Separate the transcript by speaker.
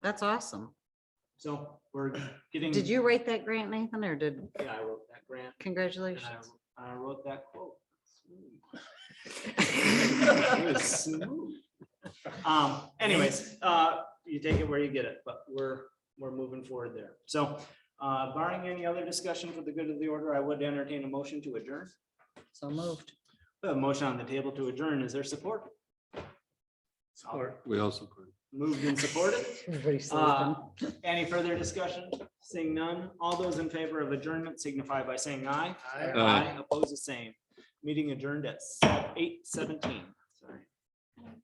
Speaker 1: That's awesome.
Speaker 2: So we're getting.
Speaker 1: Did you write that grant, Nathan, or did,
Speaker 2: Yeah, I wrote that grant and
Speaker 1: congratulations?
Speaker 2: I, I wrote that quote. It was smooth. Um, anyways, uh, you take it where you get it, but we're, we're moving forward there. So, uh, barring any other discussion for the good of the order, I would entertain a motion to adjourn.
Speaker 1: So moved.
Speaker 2: We have A motion on the table to adjourn. Is there support?
Speaker 3: We also could.
Speaker 2: Moved and supported.
Speaker 1: Everybody says
Speaker 2: Uh,
Speaker 1: them.
Speaker 2: Any further discussion? Seeing none, all those in favor of adjournment signify by saying aye.
Speaker 3: Aye.
Speaker 2: Oppose the same. Meeting adjourned at eight seventeen. Sorry.